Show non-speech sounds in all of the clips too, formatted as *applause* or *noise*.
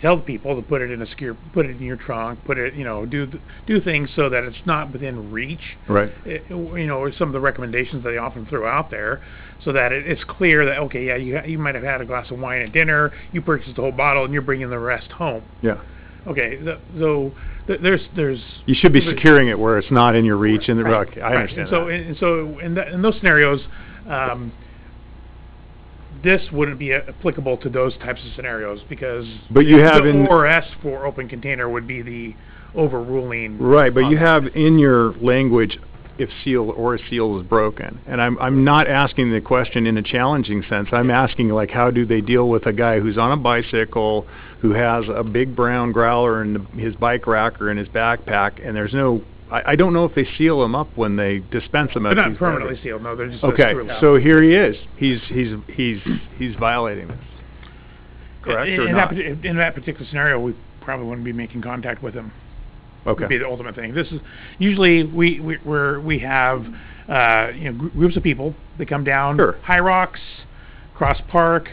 tell people to put it in a secure, put it in your trunk, put it, you know, do th- do things so that it's not within reach. Right. It, you know, some of the recommendations that they often throw out there, so that it, it's clear that okay, yeah, you ha- you might have had a glass of wine at dinner, you purchased the whole bottle, and you're bringing the rest home. Yeah. Okay, th- so th- there's there's You should be But- securing it where it's not in your reach and, the- Right, okay, I right. understand And so, that. and so, in, that, in those scenarios, um, this wouldn't be a- applicable to those types of scenarios because. But you the- have the in- ORS for open container would be the overruling. Right, but on you that. have in your language, if seal or seal is broken. And I'm, I'm not asking the question in a challenging sense. I'm asking like, how do they deal with a guy who's on a bicycle, who has a big brown growler and the- his bike rack or in his backpack, and there's no, I, I don't know if they seal him up when they dispense him. They're not permanently sealed, no, they're just. a Okay, screw-loop. so here he is. He's, he's, he's, he's violating this. Correct In- or in that not? parti- In that particular scenario, we probably wouldn't be making contact with them. would be Okay, the ultimate thing. This is usually we we we're, we have uh, you know gr- groups of people that come down Sure. High Rocks, Cross Park,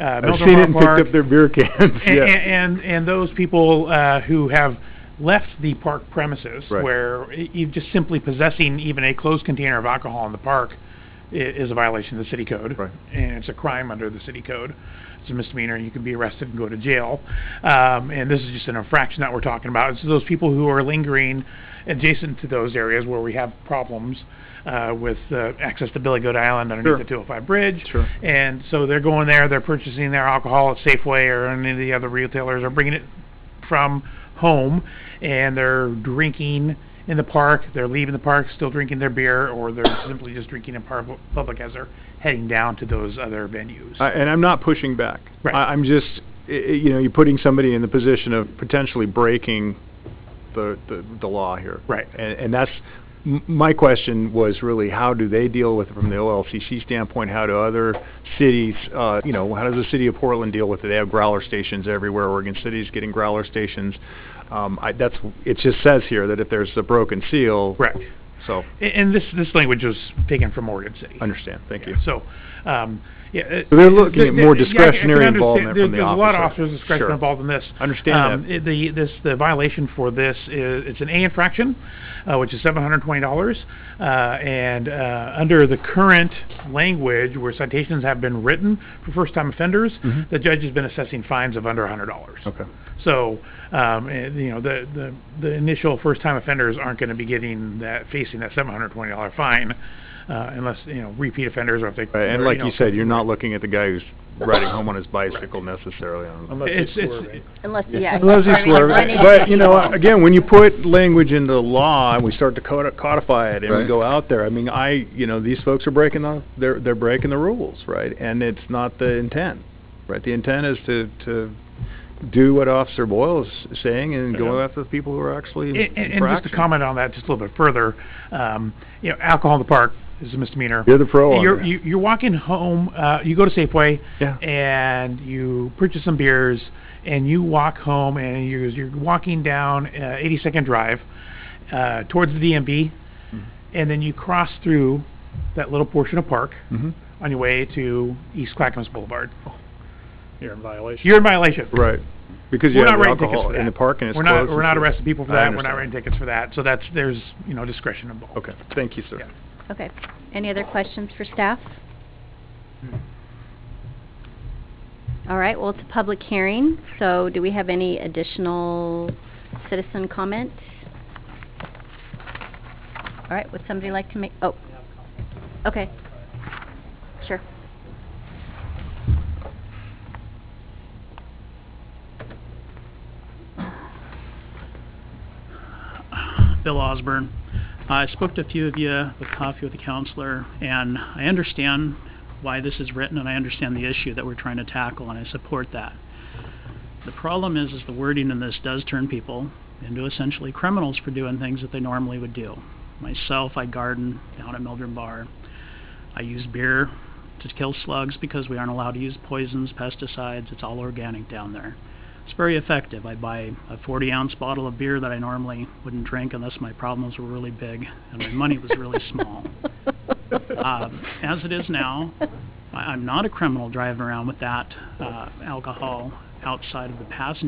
uh, I've seen it Melville and Park, picked up their beer cans, *laughs* and, yeah. and, and those people uh, who have left the park premises Right. where y- you just simply possessing even a closed container of alcohol in the park i- is a violation of the city code Right. and it's a crime under the city code it's a misdemeanor you can be arrested and go to jail um, and this is just an infraction that we're talking about it's those people who are lingering adjacent to those areas where we have problems uh, with uh, access to Billy Goat Island underneath Sure. the 205 bridge Sure. and so they're going there, they're purchasing their alcohol at Safeway or any of the other retailers, or bringing it from home, and they're drinking in the park. They're leaving the park, still drinking their beer, or they're simply just drinking in par- public as they're heading down to those other venues. I, and I'm not pushing back. Right. I, I'm just, i- i- you know, you're putting somebody in the position of potentially breaking the the, the law here. Right. And, and that's m- my question was really how do they deal with it from the OLCC standpoint? How do other cities, uh, you know, how does the city of Portland deal with it? They have growler stations everywhere. Oregon City's getting growler stations. Um, I, that's it. Just says here that if there's a broken seal, Correct. so A- And this this language was taken from Oregon City. understand. Thank you. So, um, yeah. it- So they're looking at th- th- more yeah, I c- I can discretionary understand- involvement there- from the There's a lot of officer. officers' discretion Sure. involved in this. Understand Um, that. it- The, this, the violation for this is, it's an A infraction, uh, which is seven hundred and twenty dollars. Uh, and, uh, under the current language where citations have been written for first-time offenders, Mhm. the judge has been assessing fines of under a hundred dollars. Okay. So, um, and, you know, the, the, the initial first-time offenders aren't gonna be getting that, facing that seven hundred and twenty dollar fine, uh, unless, you know, repeat offenders or if they. Right, and or, like you know, said, you're not looking at the guy who's riding home on his bicycle necessarily. on- It's, it's, Unless, yeah. Unless he's sorry, running swerving, into but you know, people. again, when you put language into law and we start to codi- codify it and we Right. go out there, I mean, I, you know, these folks are breaking the, they're, they're breaking the rules, right? And it's not the intent, right? The intent is to, to do what Officer Boyle is saying and go Yeah. after the people who are actually And- and- infracting. And just to comment on that just a little bit further, um, you know, alcohol in the park is a misdemeanor. You're the pro on You're, that. you- you're walking home, uh, you go to Safeway. Yeah. And you purchase some beers and you walk home and you're, you're walking down, uh, eighty-second Drive, uh, towards the DMV. Mm-hmm. And then you cross through that little portion of park Mhm. on your way to East Clackamas Boulevard. Oh. You're in violation. You're in violation. Right, because you We're have not the writing tickets alcohol for that. in the park and it's We're closed. not, we're and not so- arresting people for I that. We're not understand. writing tickets for that. So that's, there's, you know, discretion involved. Okay, thank you, sir. Yeah. Okay. Any other questions for staff? All right, well, it's a public hearing, so do we have any additional citizen comments? All right, would somebody like to make, oh. Okay. Sure. Bill Osborne. I spoke to a few of you with coffee with the counselor, and I understand why this is written, and I understand the issue that we're trying to tackle, and I support that. The problem is, is the wording in this does turn people into essentially criminals for doing things that they normally would do. Myself, I garden down at Mildred Bar. I use beer to kill slugs because we aren't allowed to use poisons, pesticides. It's all organic down there. It's very effective. I buy a 40 ounce bottle of beer that I normally wouldn't drink unless my problems were really big and my money was really *laughs* small. Um, as it is now, I- I'm not a criminal driving around with that uh, alcohol outside of the passenger.